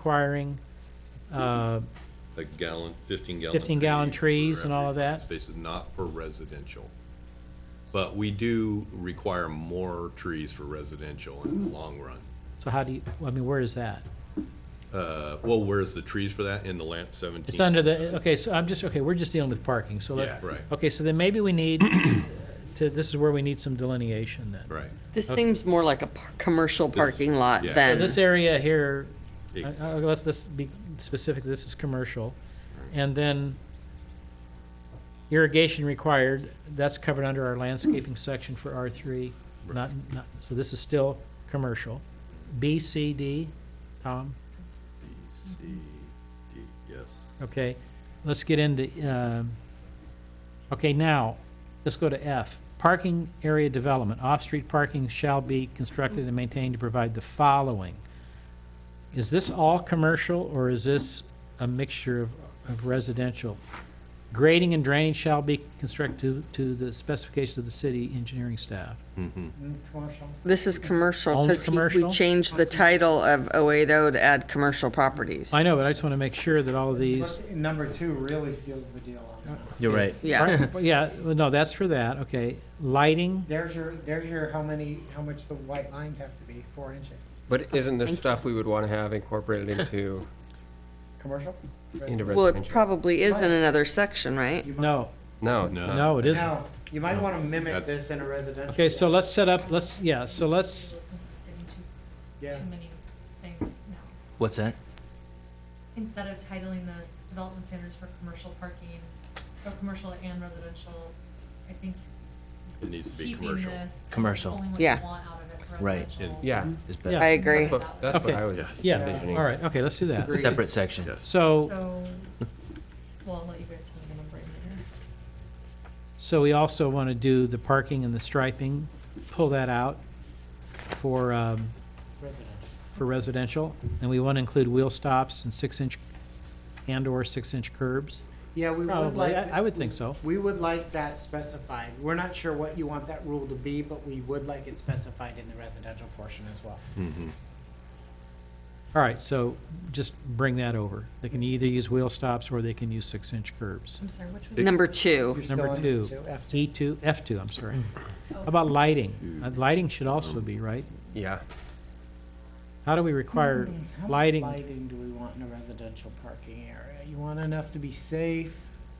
requiring uh, a gallon, fifteen gallon. 15 gallon tree trees for and all every of that? Space is not for residential. But we do require more trees for residential in the long run. So how do you, I mean, where is that? Uh, well, where's the trees for that in the land seventeen? It's under the, okay, so I'm just, okay, we're just dealing with parking, so Yeah, let, right, okay, so then maybe we need to, this is where we need some delineation then. right. This seems more like a par- commercial parking lot yeah. than, This area here, uh, Ex- uh, let's, let's be specific, this is commercial. And then irrigation required, that's covered under our landscaping section for R three, not, not, so this is still commercial. B, C, D, Tom? Yes. Okay, let's get into, um, okay, now, let's go to F. Parking area development, off-street parking shall be constructed and maintained to provide the following. Is this all commercial, or is this a mixture of of residential? Grading and drainage shall be constructed to to the specifications of the city engineering staff. this is commercial, Only because we commercial? changed the title of 080 to add commercial properties. I know, but I just want to make sure that all of these, But Number two really seals the deal on that. You're right. Yeah, yeah, well, no, that's for that, okay. Lighting, There's your, there's your, how many, how much the white lines have to be, four inches. But isn't Thank you. this stuff we would want to have incorporated into, Commercial? into well, it residential? probably is in another section, right? You might- no, No, it's No. not. no, it isn't. No, you might want to mimic That's- this in a residential. Okay, so let's set up, let's, yeah, so let's, Maybe too, Yeah, too many things now. What's that? Instead of titling this development standards for commercial parking, or commercial and residential, I think It needs to be keeping commercial. this. Commercial. Only what you Yeah. want out of it for Right. residential. Yeah, Mm-hmm. Yeah. Is better. I agree. that's what, that's what Okay. I was. Yes. yeah, envisioning. all right, okay, let's do that. Agreed. Separate section. Yes. So, So, well, I'll let you guys have a number in later. so we also want to do the parking and the striping, pull that out for, um, residential. for residential. And we want to include wheel stops and six-inch and/or six-inch curbs. Yeah, we would Probably, like. I I would think so. We would like that specified. We're not sure what you want that rule to be, but we would like it specified in the residential portion as well. All right, so just bring that over. They can either use wheel stops or they can use six-inch curbs. I'm sorry, which was? Number You're two, still Number on two. F two. E2, F2, I'm sorry. How about lighting? Uh, Lighting should also be, right? Yeah, How do we require How much lighting? Lighting do we want in a residential parking area? You want enough to be safe,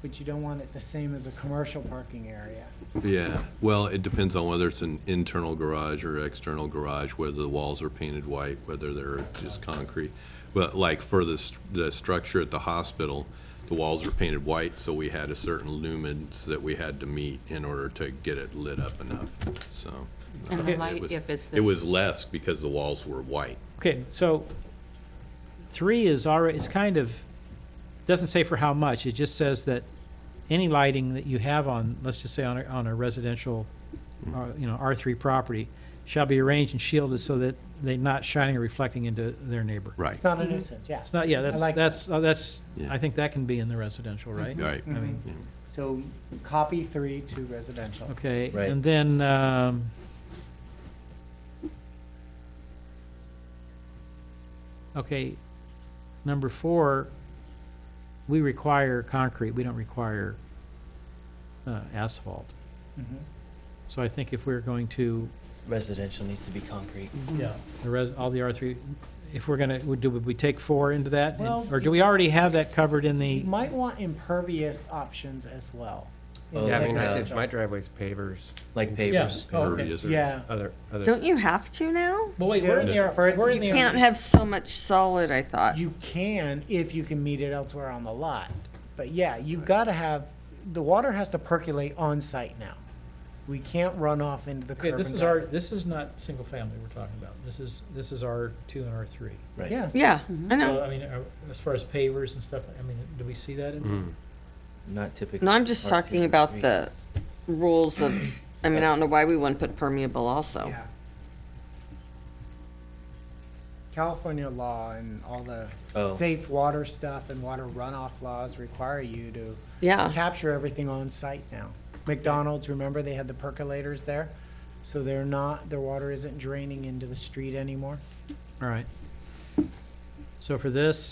but you don't want it the same as a commercial parking area. Yeah, well, it depends on whether it's an internal garage or external garage, whether the walls are painted white, whether they're just concrete. But like for the, s- the structure at the hospital, the walls are painted white, so we had a certain lumens that we had to meet in order to get it lit up enough, so. And the Okay. it was- light, if it's, a- It was less because the walls were white. Okay, so three is already, it's kind of, doesn't say for how much, it just says that any lighting that you have on, let's just say on a, on a residential, Mm. uh, you know, R three property, shall be arranged and shielded so that they're not shining or reflecting into their neighbor. Right. It's not a nuisance, yeah. It's not, yeah, that's, like that. that's, uh, that's, Yeah. I think that can be in the residential, right? Right. I mean, So copy three to residential. Okay, Right. and then, um, okay, number four, we require concrete, we don't require, uh, asphalt. Mhm. So I think if we're going to, Residential needs to be concrete. yeah, the res, all the R three, if we're gonna, would, do, would we take four into that? And- Well, Or do we already have that covered in the, You might want impervious options as well. in Oh, yeah, I mean, I- it's my driveway's pavers, Like pavers. Yeah. Oh, okay. Impervious or- Yeah. other, other, don't you have to now? well, wait, we're in Yeah. the, For it- we're in you the. Can't have so much solid, I thought. You can if you can meet it elsewhere on the lot. But yeah, you've got to have, the water has to percolate on site now. We can't run off into the Okay, curb. this and is gutter. our, this is not single family we're talking about. This is, this is R two and R three. Right. Yes. Yeah, I So, know. I mean, uh, as far as pavers and stuff, I mean, do we see that in? Not typical. No, I'm just R2, talking about concrete. the rules of, I mean, I don't know why we wouldn't put permeable also. Yeah. California law and all the Oh. safe water stuff and water runoff laws require you to Yeah. capture everything on site now. McDonald's, remember they had the percolators there? So they're not, their water isn't draining into the street anymore. All right. So for this,